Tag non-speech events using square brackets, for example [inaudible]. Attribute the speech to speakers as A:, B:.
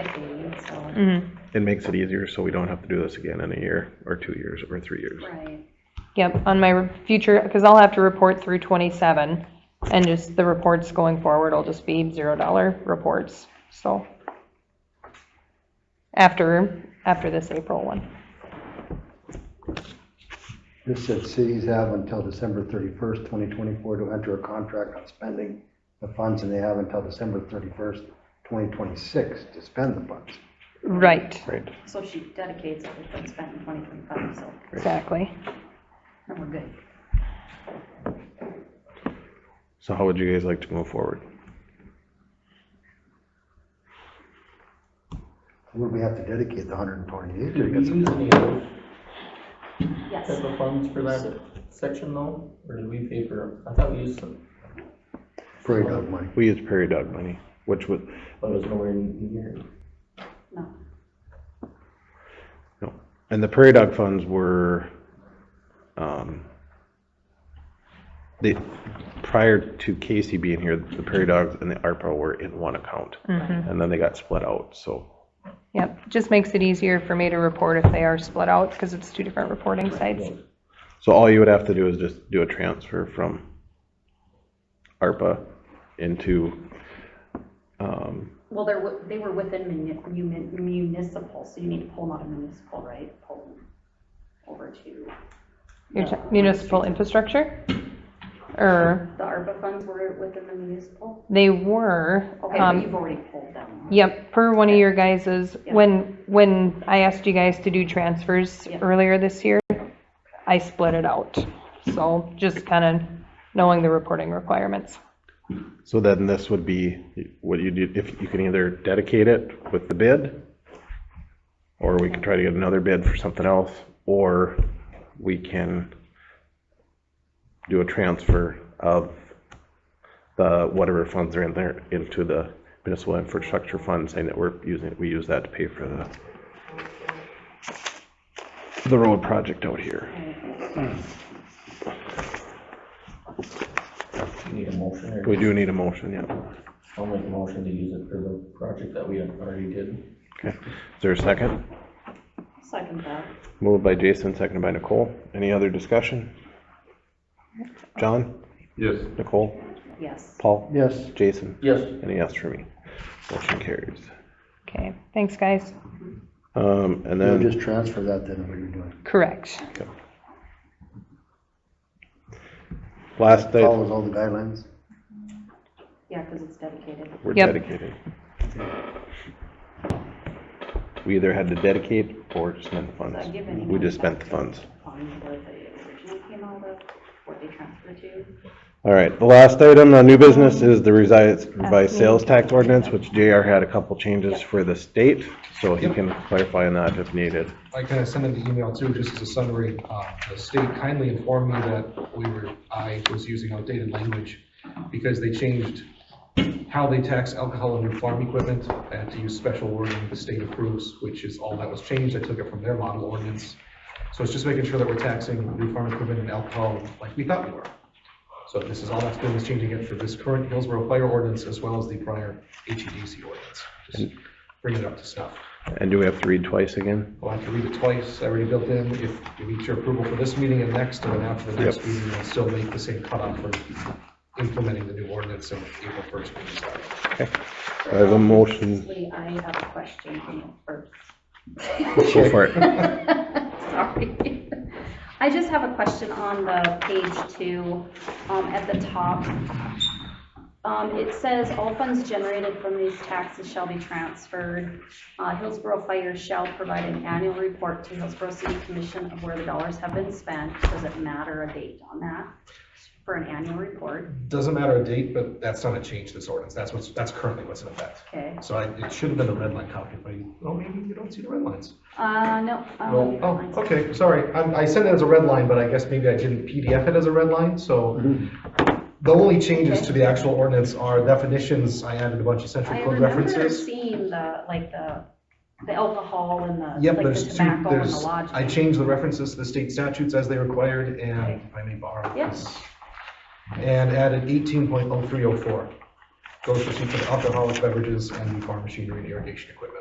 A: Mm.
B: It makes it easier so we don't have to do this again in a year or two years or three years.
C: Right.
A: Yep, on my future, because I'll have to report through 27, and just the reports going forward will just be $0 reports, so. After, after this April one.
D: This said cities have until December thirty-first, twenty twenty-four to enter a contract on spending the funds, and they have until December thirty-first, twenty twenty-six to spend the funds.
A: Right,
B: Right.
C: So she dedicates it, it's been spent in 2025, so
A: exactly.
C: then we're good.
B: So how would you guys like to move forward?
D: Would we have to dedicate the hundred and twenty-eight?
E: Did we use any of those
C: Yes,
E: type of funds for that section though, or did we pay for, I thought we used some,
D: Prairie dog money.
B: We use prairie dog money, which would,
E: but it was nowhere near.
C: no,
B: no. And the prairie dog funds were, um, they, prior to Casey being here, the prairie dogs and the ARPA were in one account. And then they got split out, so.
A: Yep, just makes it easier for me to report if they are split out, because it's two different reporting sites.
B: So all you would have to do is just do a transfer from ARPA into, um,
C: well, they're, wi- they were within muni- muni- municipal, so you need to pull them out of municipal, right? Pull them over to,
A: Your t- Municipal infrastructure? Or,
C: the ARPA funds were within the municipal?
A: they were.
C: Okay,
A: um,
C: but you've already pulled them. huh?
A: Yep, per one of your guys's,
C: Yeah.
A: when, when I asked you guys to do transfers
C: Yeah.
A: earlier this year, I split it out. So just kind of knowing the reporting requirements.
B: so then this would be what you do, if you can either dedicate it with the bid, or we can try to get another bid for something else, or we can do a transfer of the, whatever funds are in there into the municipal infrastructure fund, saying that we're using, we use that to pay for the the road project out here.
E: You Need a motion or?
B: We do need a motion, yeah.
E: I'll make a motion to use it for the project that we already did.
B: Okay, is there a second?
C: Second that.
B: Moved by Jason, seconded by Nicole. Any other discussion? John?
F: Yes.
B: Nicole?
C: Yes.
B: Paul?
D: Yes,
B: Jason?
E: Yes.
B: Any yes for me? Motion carries.
A: Okay, thanks, guys.
B: Um, and
D: we'll
B: then,
D: just transfer that then, what you're doing.
A: Correct.
B: last day,
D: Follows all the guidelines.
C: Yeah, because it's dedicated.
B: we're
A: Yep.
B: dedicated. We either had to dedicate or spend the
C: Does that give any
B: funds. We
C: money
B: just spent the
C: back
B: funds.
C: to Funds where they originally came out of, what they transferred to.
B: All right, the last item on new business is the revised, revised sales tax ordinance, which JR had a couple changes for the state, so he can clarify on that if needed.
G: I kind of sent him the email too, just as a summary. Uh, The state kindly informed me that we were, I was using outdated language because they changed how they tax alcohol and new farm equipment and to use special wording the state approves, which is all that was changed. I took it from their model ordinance. So it's just making sure that we're taxing new farm equipment and alcohol like we thought we were. So this is all that's doing is changing it for this current Hillsborough fire ordinance as well as the prior HEDC ordinance. Just bringing it up to snuff.
B: And do we have to read twice again?
G: We'll have to read it twice, I already built in, if you meet your approval for this meeting and next, and then after the next
B: Yep.
G: meeting, we'll still make the same cutoff for implementing the new ordinance in April first.
B: I have a motion,
C: Actually, I have a question on the
G: [laughs]
C: first.
B: go for it.
C: Sorry. I just have a question on the page two, um, at the top. Um, it says all funds generated from these taxes shall be transferred. Uh, Hillsborough Fire shall provide an annual report to Hillsborough City Commission of where the dollars have been spent. Does it matter a date on that for an annual report?
G: Doesn't matter a date, but that's not a change to this ordinance, that's what's, that's currently what's in effect.
C: Okay,
G: So I, it should have been a red line copy, but, you- oh, maybe you don't see the red lines.
C: uh, no. I don't
G: No,
C: think
G: oh,
C: that's-
G: okay, sorry, I, I sent it as a red line, but I guess maybe I didn't PDF it as a red line, so. The only changes to the actual ordinance are definitions, I added a bunch of central
C: I
G: code
C: remember
G: references.
C: seeing the, like, the, the alcohol and the,
G: Yep,
C: like, the
G: there's two,
C: tobacco and the
G: there's,
C: lodging.
G: I changed the references to the state statutes as they required, and
C: Okay.
G: if I may borrow
C: Yeah.
G: this. And added eighteen point oh three oh four. Goes for seats of alcoholic beverages and farm machinery and irrigation equipment.